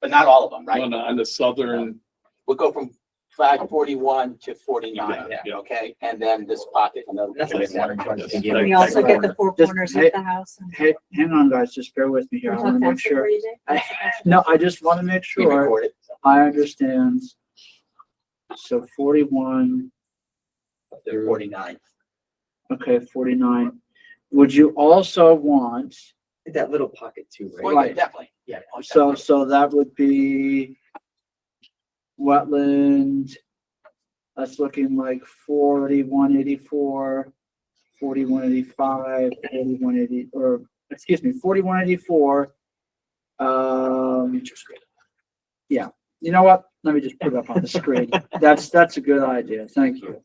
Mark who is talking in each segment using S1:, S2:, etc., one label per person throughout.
S1: but not all of them, right?
S2: on the, on the southern,
S1: We'll go from five forty-one to forty-nine,
S2: Yeah, yeah.
S1: okay? And then this pocket, and then.
S3: That's what I said.
S2: Like-
S4: We also
S2: like
S4: get the four
S3: Just-
S4: corners
S3: hey,
S4: of the house. and-
S3: Hey, hang on guys, just bear with me here. I
S4: You're
S3: wanna
S4: talking
S3: make
S4: taxes for
S3: sure.
S4: you, Jay? That's the question.
S3: No, I just want to make
S1: We
S3: sure
S1: record it.
S3: I understand. So forty-one,
S1: They're forty-nine.
S3: okay, forty-nine. Would you also want,
S5: That little pocket too,
S1: Oh,
S5: right?
S1: yeah,
S3: Right.
S1: definitely, yeah. oh,
S3: so,
S1: definitely.
S3: so that would be wetland, that's looking like forty-one eighty-four, forty-one eighty-five, forty-one eighty, or, excuse me, forty-one eighty-four. Um, you know what? Let me just put it up on the screen. That's, that's a good idea. Thank you.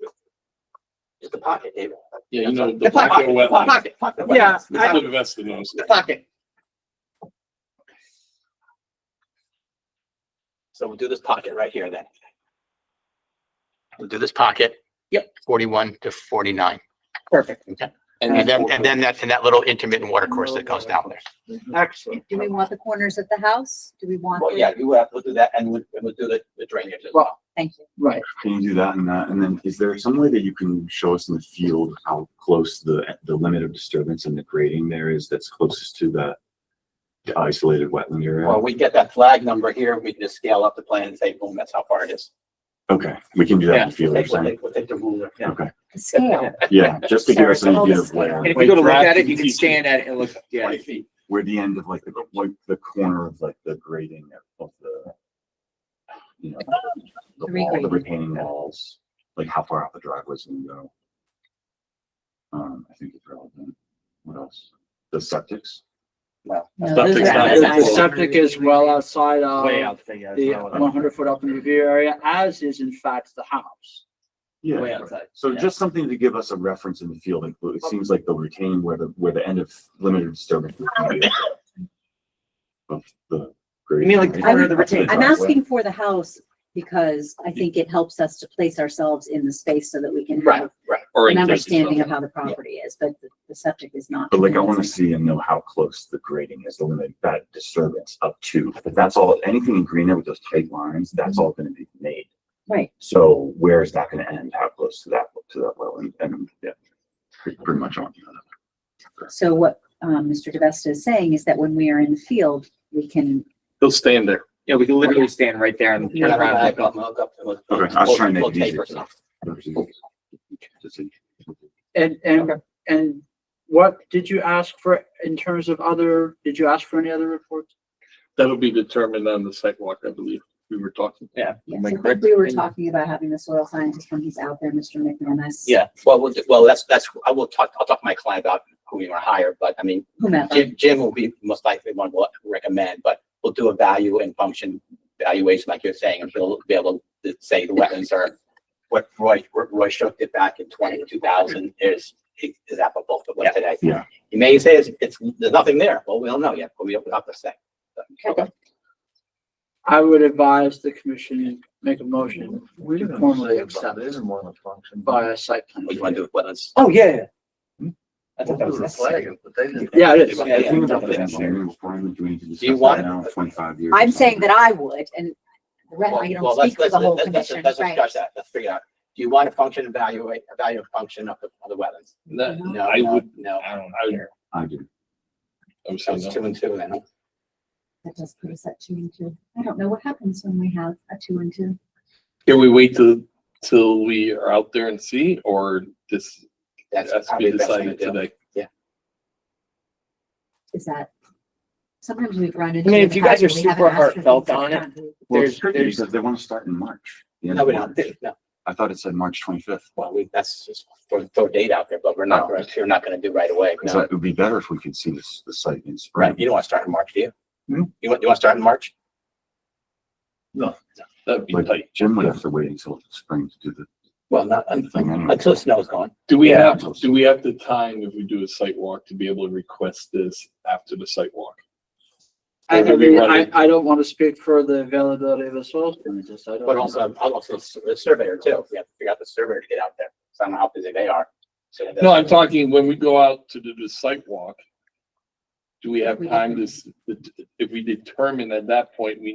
S1: It's the pocket, David.
S2: yeah, you know, the
S1: The
S2: black
S1: pocket,
S2: and wetlands.
S1: pocket, pocket.
S3: Yeah,
S1: wetlands.
S2: We
S1: The
S2: live
S1: pocket,
S2: in West of those.
S1: The pocket. So we'll do this pocket right here then. We'll do this pocket. Yep. Forty-one to forty-nine. Perfect. Okay. And then, and then that's in that little intermittent water course that goes down there.
S3: Excellent.
S4: Do we want the corners of the house? Do we want?
S1: Well,
S4: the-
S1: yeah, you will have to do that and we'll, and we'll do the, the drainage as well.
S4: Thank you.
S3: Right.
S6: Can you do that and that? And then is there some way that you can show us in the field how close the, the limit of disturbance and the grading there is that's closest to the the isolated wetland
S1: Well,
S6: area?
S1: we get that flag number here, we can just scale up the plan and say, boom, that's how far it is.
S6: Okay, we can do that in the field, you're
S1: Take- we'll
S6: saying?
S1: take- we'll take the ruler, yeah.
S6: Okay,
S4: Scale.
S6: yeah, just to give us an
S4: Sarah,
S6: idea
S4: tell
S6: of
S4: us.
S6: where,
S5: And if
S2: Wait,
S5: you go to look
S2: grab
S5: at it, you
S2: and
S5: can
S2: teach
S5: stand at it and look, yeah.
S1: Twenty feet.
S6: where the end of like, the like the corner of like the grading of the, you know, the
S4: Three
S6: wall, the
S4: grading.
S6: retaining walls, like how far out the driveway's gonna go. Um, I think it's relevant. What else? The septics?
S4: No,
S2: That's
S4: those are
S2: exactly-
S4: outside.
S3: The septic is well outside
S5: Way
S3: of
S5: out there, yeah.
S3: Um, the
S5: it's not-
S3: one hundred foot up in review area, as is in fact the house.
S6: Yeah.
S5: Way
S6: right.
S5: outside.
S6: So
S5: yeah.
S6: just something to give us a reference in the field, like, it seems like they'll retain where the, where the end of limited disturbance. is gonna be. Of the.
S5: You mean like the corner of the retaining
S4: I'm asking for the house because I think it helps us to place ourselves in the space so that we can
S1: Right,
S4: have
S1: right.
S4: an understanding of how the property is, but the- the septic is not.
S6: But like, I wanna see and know how close the grading is, the limit, that disturbance up to, but that's all, anything in green there with those tight lines, that's
S5: Mm-hmm.
S6: all gonna be made.
S4: Right.
S6: So where is that gonna end? How close to that, to that well, and, and, yeah, pretty, pretty much on.
S4: So what, um, Mr. DeVesta is saying is that when we are in the field, we can,
S2: They'll stand there.
S5: Yeah, we can literally stand right there and turn
S1: Yeah,
S5: around and
S1: I
S5: look up.
S1: got my hook up to it.
S6: Okay, I was trying to
S1: We'll
S6: make it
S1: tape or
S6: easier.
S1: something.
S3: And, and, and what did you ask for in terms of other, did you ask for any other reports?
S2: That'll be determined on the sidewalk, I believe, we were talking.
S5: Yeah.
S4: yes,
S5: Am I
S4: I think
S5: correct?
S4: we were talking about having the soil scientist when he's out there, Mr. McManus.
S5: Yeah.
S1: Well, we'll, do- well, that's, that's, I will talk, I'll talk to my client about who we want to hire, but I mean,
S4: Whomever.
S1: Jim, Jim will be most likely one we'll recommend, but we'll do a value and function valuation, like you're saying, and we'll be able to say the wetlands are what Roy, Roy Shook did back in twenty, two thousand is, is applicable to what today.
S6: Yeah.
S1: He may say it's, it's, there's nothing there. Well, we don't know yet, but we don't have to say.
S4: Okay.
S3: I would advise the commission make a motion to formally accept by a site plan.
S1: What you want to do with wetlands?
S5: Oh, yeah, yeah. I thought that was necessary.
S3: Yeah, it is.
S1: Yeah, yeah. Do you want-
S4: I'm saying that I would, and the rest, I
S1: Well,
S4: don't
S1: let's-
S4: speak for
S1: let's-
S4: the
S1: let's-
S4: whole
S1: let's-
S4: commission,
S1: Let's discuss
S4: right?
S1: that, let's figure out, do you want to function evaluate, evaluate function of the, of the wetlands?
S2: That,
S1: No,
S2: I
S1: no,
S2: would,
S1: No,
S5: I don't
S2: I would,
S5: care.
S6: I do.
S2: I would say
S1: that's two
S2: no.
S1: and two then.
S4: That does put us at two and two. I don't know what happens when we have a two and two.
S2: Can we wait till, till we are out there and see, or this
S1: That's
S2: has to
S1: probably
S2: be
S1: the best thing
S2: decided
S1: to do.
S2: today?
S4: Is that, sometimes we run
S5: mean,
S4: into.
S5: if
S4: the
S5: you guys
S4: fact
S5: are
S4: that we haven't
S5: super
S4: asked for
S5: heartfelt
S4: things
S5: on it,
S4: upfront.
S6: Well, it's
S5: There's-
S6: tricky
S5: there's-
S6: because they want to start in March. the end
S1: No,
S6: of
S1: we don't,
S6: March.
S1: no,
S6: I thought it said March twenty-fifth.
S1: well, we, that's just throw, throw a date out there, but we're not, gonna- we're not gonna do right away,
S6: So
S1: no.
S6: it would be better if we could see this, the site in spring.
S1: Right, you don't want to start in March, do you?
S6: Hmm?
S1: You want, you want to start in March?
S2: That'd be tight.
S6: Like Jim would have to wait until spring to do the
S1: Well, not, un-
S6: thing anyway.
S1: until the snow's gone.
S2: Do we
S6: Yeah.
S2: have, do we have the time if we do a site walk to be able to request this after the site walk?
S3: I,
S2: Or do
S3: I
S2: we
S3: mean,
S2: want
S3: I,
S2: it-
S3: I don't want to speak for the availability of the soil scientist. I don't.
S1: But also, I'll also s- the surveyor too, we have to figure out the surveyor to get out there, so I don't know how busy they are. So that's-
S2: No, I'm talking when we go out to do the site walk. Do we have
S4: We
S2: time to, s- if we determine at that point, we